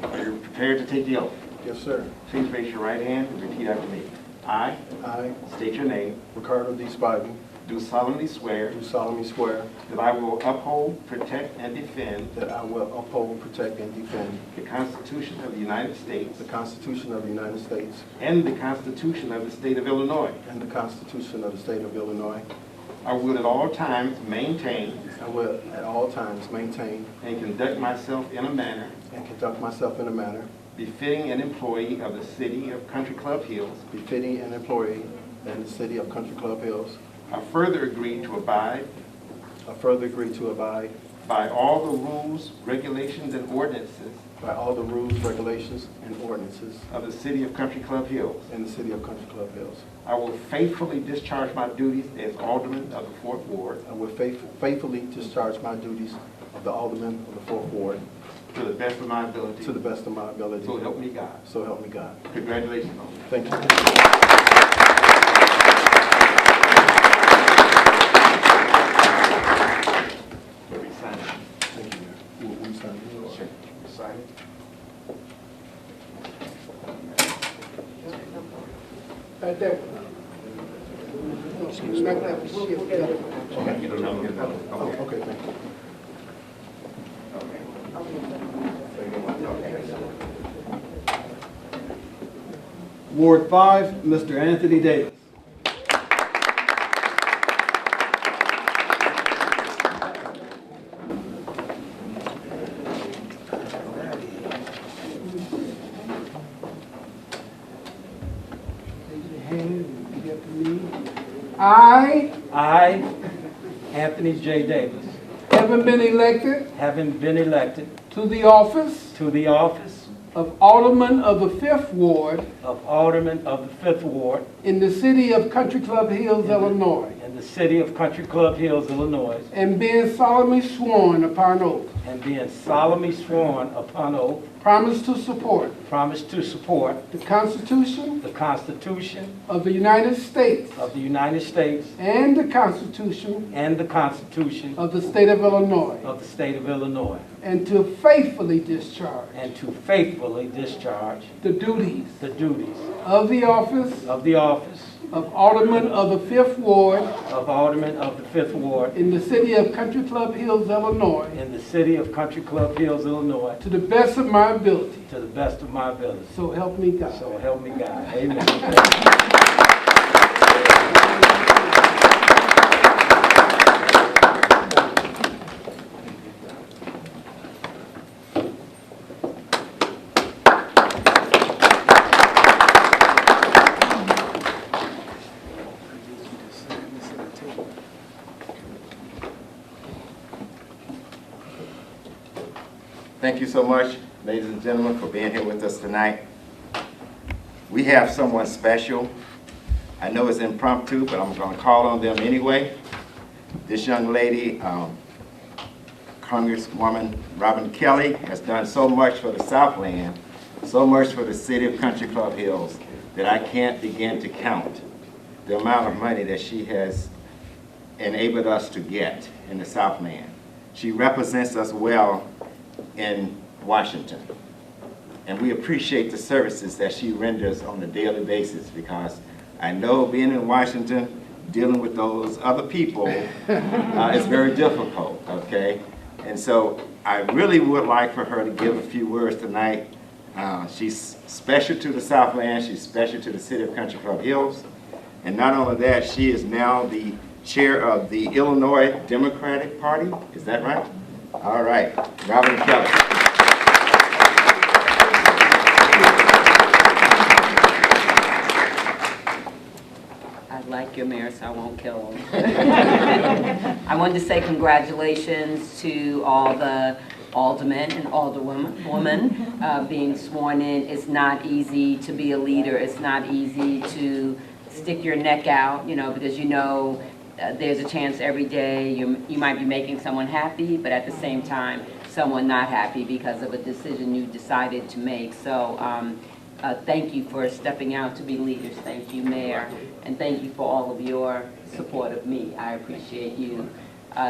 prepared to take the oath. Yes, sir. Please raise your right hand and repeat after me. I I, state your name, Ricardo D. Spivey, do solemnly swear do solemnly swear that I will uphold, protect, and defend that I will uphold, protect, and defend the Constitution of the United States the Constitution of the United States and the Constitution of the State of Illinois. and the Constitution of the State of Illinois. I will at all times maintain I will at all times maintain and conduct myself in a manner and conduct myself in a manner befitting an employee of the City of Country Club Hills. befitting an employee in the city of Country Club Hills. I further agree to abide I further agree to abide by all the rules, regulations, and ordinances by all the rules, regulations, and ordinances of the City of Country Club Hills. in the city of Country Club Hills. I will faithfully discharge my duties as Alderman of the Fort Ward I will faith- faithfully discharge my duties of the Alderman of the Fourth Ward to the best of my ability. to the best of my ability. So help me God. So help me God. Congratulations, Alderman. Thank you. We'll be signing. Thank you, Mayor. Will- will you sign this? Sign it. Right there. We're not gonna have to shift. Okay, you don't know, you know. Oh, Okay. okay, thank you. Okay. Ward 5, Mr. Anthony Davis. Raise your hand and repeat after me. I, I, Anthony J. Davis, having been elected having been elected to the office to the office of Alderman of the Fifth Ward of Alderman of the Fifth Ward in the city of Country Club Hills, Illinois, in the city of Country Club Hills, Illinois, and being solemnly sworn upon oath, and being solemnly sworn upon oath, promise to support promise to support the Constitution the Constitution of the United States of the United States and the Constitution and the Constitution of the State of Illinois, of the State of Illinois, and to faithfully discharge and to faithfully discharge the duties the duties of the office of the office of Alderman of the Fifth Ward of Alderman of the Fifth Ward in the city of Country Club Hills, Illinois, in the city of Country Club Hills, Illinois, to the best of my ability. to the best of my ability. So help me God. So help me God. Amen. Thank you so much, ladies and gentlemen, for being here with us tonight. We have someone special. I know it's impromptu, but I'm going to call on them anyway. This young lady, um, Congresswoman Robin Kelly, has done so much for the Southland, so much for the city of Country Club Hills, that I can't begin to count the amount of money that she has enabled us to get in the Southland. She represents us well in Washington. And we appreciate the services that she renders on a daily basis because I know being in Washington, dealing with those other people uh, is very difficult, okay? And so I really would like for her to give a few words tonight. Uh, She's special to the Southland, she's special to the city of Country Club Hills. And not only that, she is now the chair of the Illinois Democratic Party, is that right? All right, Robin Kelly. I like your mayor, so I won't kill him. I wanted to say congratulations to all the aldermen and alderwomen women, uh, being sworn in. It's not easy to be a leader. It's not easy to stick your neck out, you know, because you know uh, there's a chance every day you you might be making someone happy, but at the same time, someone not happy because of a decision you decided to make. So um, uh, Thank you for stepping out to be leaders. Thank you, Uh, Mayor, and thank you for all of your support of me. I appreciate you